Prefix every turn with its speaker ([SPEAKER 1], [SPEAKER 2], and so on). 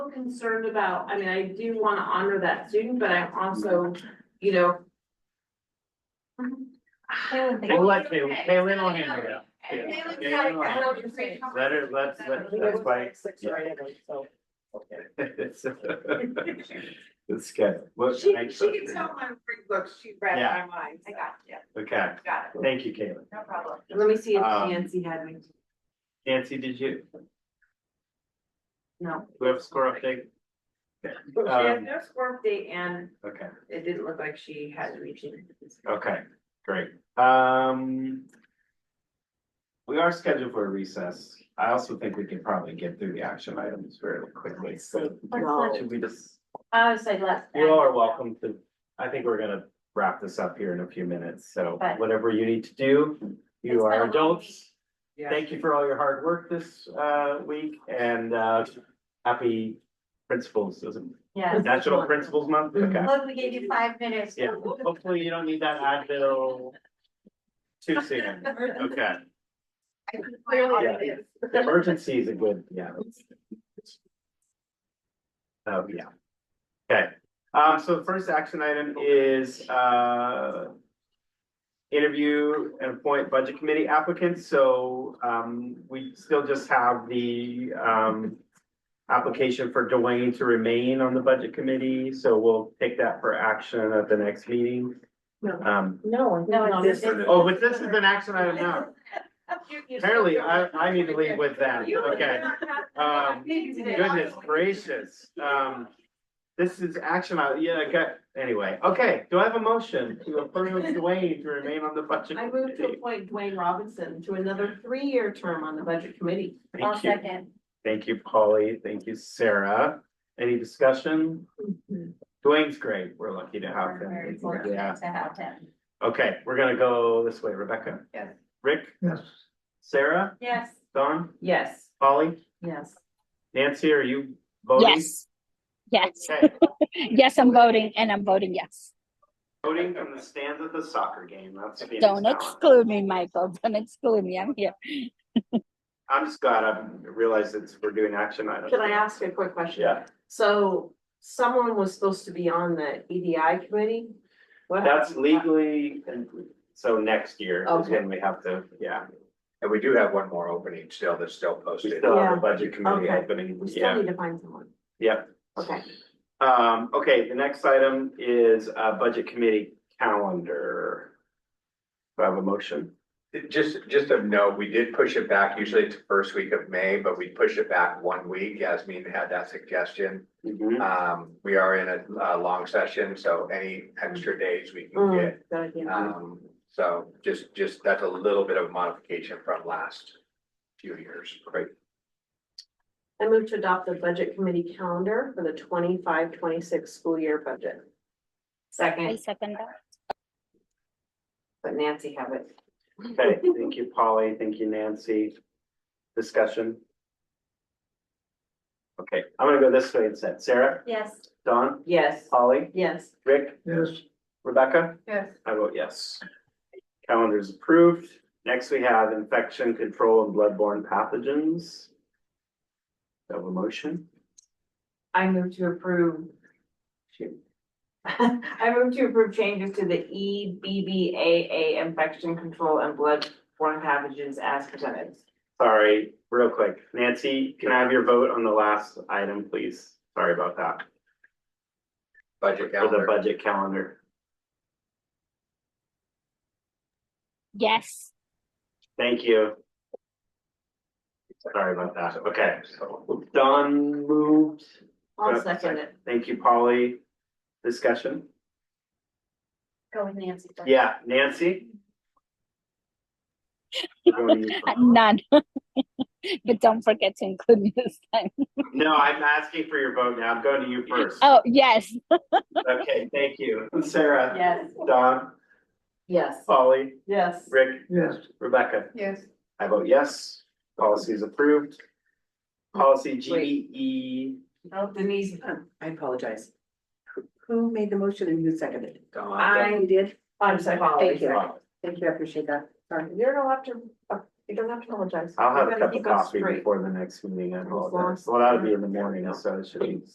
[SPEAKER 1] concerned about, I mean, I do wanna honor that student, but I'm also, you know.
[SPEAKER 2] We'll let Kay- Kaylin will handle that.
[SPEAKER 1] And
[SPEAKER 2] Yeah.
[SPEAKER 1] Kaylin's
[SPEAKER 2] Yeah,
[SPEAKER 1] had a
[SPEAKER 2] you're right.
[SPEAKER 1] couple of great
[SPEAKER 2] Let her, let's,
[SPEAKER 1] conversations.
[SPEAKER 2] let- that's why. uh,
[SPEAKER 3] Six right in it, so.
[SPEAKER 2] It's good. What-
[SPEAKER 1] She,
[SPEAKER 2] I-
[SPEAKER 1] she can tell my free books, she read
[SPEAKER 2] Yeah.
[SPEAKER 1] my mind. I got you,
[SPEAKER 2] Okay,
[SPEAKER 1] got it,
[SPEAKER 2] thank you, Kaylin.
[SPEAKER 1] no problem. Let me see if
[SPEAKER 2] Um,
[SPEAKER 1] Nancy had me,
[SPEAKER 2] Nancy, did you,
[SPEAKER 1] no.
[SPEAKER 2] do we have a score update?
[SPEAKER 1] She had
[SPEAKER 2] um,
[SPEAKER 1] no score update and
[SPEAKER 2] Okay,
[SPEAKER 1] it didn't look like she had reaching.
[SPEAKER 2] okay, great. Um. We are scheduled for a recess. I also think we can probably get through the action items fairly quickly, so.
[SPEAKER 1] No.
[SPEAKER 2] Should we just?
[SPEAKER 4] I would say less.
[SPEAKER 2] You all are welcome to, I think we're gonna wrap this up here in a few minutes, so
[SPEAKER 4] But-
[SPEAKER 2] whatever you need to do,
[SPEAKER 4] It's been
[SPEAKER 2] you
[SPEAKER 4] a
[SPEAKER 2] are
[SPEAKER 4] long
[SPEAKER 2] adults.
[SPEAKER 4] week.
[SPEAKER 2] Thank you for all your hard work this uh week and uh happy principals, is it
[SPEAKER 4] Yes.
[SPEAKER 2] National Principals Month, okay.
[SPEAKER 4] Look, we gave you five minutes.
[SPEAKER 2] Yeah, hopefully you don't need that Advil too soon, okay.
[SPEAKER 1] Clearly
[SPEAKER 2] Yeah.
[SPEAKER 1] it is.
[SPEAKER 2] Emergency is a good, yeah. Oh, yeah. Okay, um, so the first action item is, uh. Interview and appoint budget committee applicants, so, um, we still just have the, um. Application for Dwayne to remain on the budget committee, so we'll take that for action at the next meeting.
[SPEAKER 3] No.
[SPEAKER 2] Um,
[SPEAKER 3] No.
[SPEAKER 4] No, it's- it's-
[SPEAKER 2] oh, but this is an action item now,
[SPEAKER 1] You- you-
[SPEAKER 2] apparently, I, I need to leave with that,
[SPEAKER 1] You would
[SPEAKER 2] okay.
[SPEAKER 1] not have-
[SPEAKER 2] Um,
[SPEAKER 1] Maybe today.
[SPEAKER 2] Goodness gracious, um, this is action, I- yeah, okay, anyway, okay, do I have a motion to approve Dwayne to remain on the budget?
[SPEAKER 3] I move to
[SPEAKER 2] committee?
[SPEAKER 3] appoint Dwayne Robinson to another three-year term on the budget committee.
[SPEAKER 4] I'll
[SPEAKER 2] Thank you,
[SPEAKER 4] second.
[SPEAKER 2] thank you, Polly, thank you, Sarah, any discussion? Dwayne's great, we're lucky to have
[SPEAKER 4] Very
[SPEAKER 2] him,
[SPEAKER 4] fortunate
[SPEAKER 2] yeah,
[SPEAKER 4] To have him.
[SPEAKER 2] okay, we're gonna go this way, Rebecca.
[SPEAKER 1] Yes.
[SPEAKER 2] Rick?
[SPEAKER 3] Yes.
[SPEAKER 2] Sarah,
[SPEAKER 4] Yes.
[SPEAKER 2] Don,
[SPEAKER 3] Yes,
[SPEAKER 2] Polly,
[SPEAKER 3] yes.
[SPEAKER 2] Nancy, are you voting?
[SPEAKER 5] Yes. Yes.
[SPEAKER 2] Okay,
[SPEAKER 5] Yes, I'm voting and I'm voting yes.
[SPEAKER 2] voting from the stands at the soccer game, that's. Phoenix
[SPEAKER 5] Don't
[SPEAKER 2] Talent.
[SPEAKER 5] exclude me, Michael. Don't exclude me. I'm here.
[SPEAKER 2] I'm just glad I realized it's, we're doing action items.
[SPEAKER 3] Can I ask a quick question?
[SPEAKER 2] Yeah,
[SPEAKER 3] So someone was supposed to be on the EDI committee? What
[SPEAKER 2] that's
[SPEAKER 3] happened?
[SPEAKER 2] legally, so next year is when we have to, yeah.
[SPEAKER 6] And we do have one more opening still that's still
[SPEAKER 2] We
[SPEAKER 6] posted.
[SPEAKER 2] still have
[SPEAKER 3] Yeah.
[SPEAKER 2] a budget committee
[SPEAKER 3] Okay.
[SPEAKER 2] opening,
[SPEAKER 3] We still
[SPEAKER 2] yeah,
[SPEAKER 3] need to find someone.
[SPEAKER 2] yeah.
[SPEAKER 3] Okay,
[SPEAKER 2] Um, okay, the next item is uh budget committee calendar. Do I have a motion?
[SPEAKER 6] Just, just of note, we did push it back. Usually it's the first week of May, but we push it back one week. Yasmin had that suggestion. Um, we are in a, a long session, so any extra days we can
[SPEAKER 3] mm,
[SPEAKER 6] get.
[SPEAKER 3] good idea.
[SPEAKER 6] Um, so just, just, that's a little bit of modification from last few years. Great.
[SPEAKER 3] I move to adopt the budget committee calendar for the 25-26 school year budget.
[SPEAKER 5] I
[SPEAKER 1] Second,
[SPEAKER 5] second that.
[SPEAKER 3] But Nancy have it.
[SPEAKER 2] Okay, thank you, Polly, thank you, Nancy. Discussion? Okay, I'm gonna go this way instead. Sarah,
[SPEAKER 4] Yes.
[SPEAKER 2] Don,
[SPEAKER 3] Yes,
[SPEAKER 2] Polly,
[SPEAKER 3] yes.
[SPEAKER 2] Rick? Yes. Rebecca?
[SPEAKER 1] yes.
[SPEAKER 2] I vote yes. Calendar is approved. Next, we have infection control and bloodborne pathogens. Do I Have a motion?
[SPEAKER 1] I move to approve. Shoot. I move to approve changes to the E B B A A infection control and bloodborne pathogens as presented.
[SPEAKER 2] Sorry, real quick. Nancy, can I have your vote on the last item, please? Sorry about that.
[SPEAKER 6] Budget
[SPEAKER 2] For the
[SPEAKER 6] calendar.
[SPEAKER 2] budget calendar.
[SPEAKER 5] Yes.
[SPEAKER 2] Thank you. Sorry about that. Okay. Don moved.
[SPEAKER 3] I'll second it.
[SPEAKER 2] Thank you, Polly. Discussion?
[SPEAKER 4] Go with Nancy. first.
[SPEAKER 2] Yeah, Nancy?
[SPEAKER 5] None. But don't forget to include me this time.
[SPEAKER 2] No, I'm asking for your vote now. I'm going to you first.
[SPEAKER 5] Oh, yes.
[SPEAKER 2] Okay, thank you. Sarah,
[SPEAKER 1] Yes.
[SPEAKER 2] Don,
[SPEAKER 3] Yes,
[SPEAKER 2] Polly,
[SPEAKER 3] yes.
[SPEAKER 2] Rick. Yes. Rebecca.
[SPEAKER 1] Yes.
[SPEAKER 2] I vote yes. Policy is approved. Policy E GBE.
[SPEAKER 1] Oh, Denise,
[SPEAKER 7] I apologize. Who- Who made the motion and who seconded it?
[SPEAKER 6] Don,
[SPEAKER 1] I,
[SPEAKER 7] You did?
[SPEAKER 1] I'm sorry.
[SPEAKER 7] Thank you. Thank you, I appreciate that. Sorry.
[SPEAKER 3] You're gonna have to, uh,
[SPEAKER 1] You don't have to apologize.
[SPEAKER 2] I'll have
[SPEAKER 1] We're
[SPEAKER 2] a
[SPEAKER 1] gonna
[SPEAKER 2] cup of
[SPEAKER 1] keep us
[SPEAKER 2] coffee
[SPEAKER 1] straight.
[SPEAKER 2] before the next meeting, I
[SPEAKER 1] As long
[SPEAKER 2] apologize.
[SPEAKER 1] as-
[SPEAKER 2] Well, that'll be in the morning, so it should be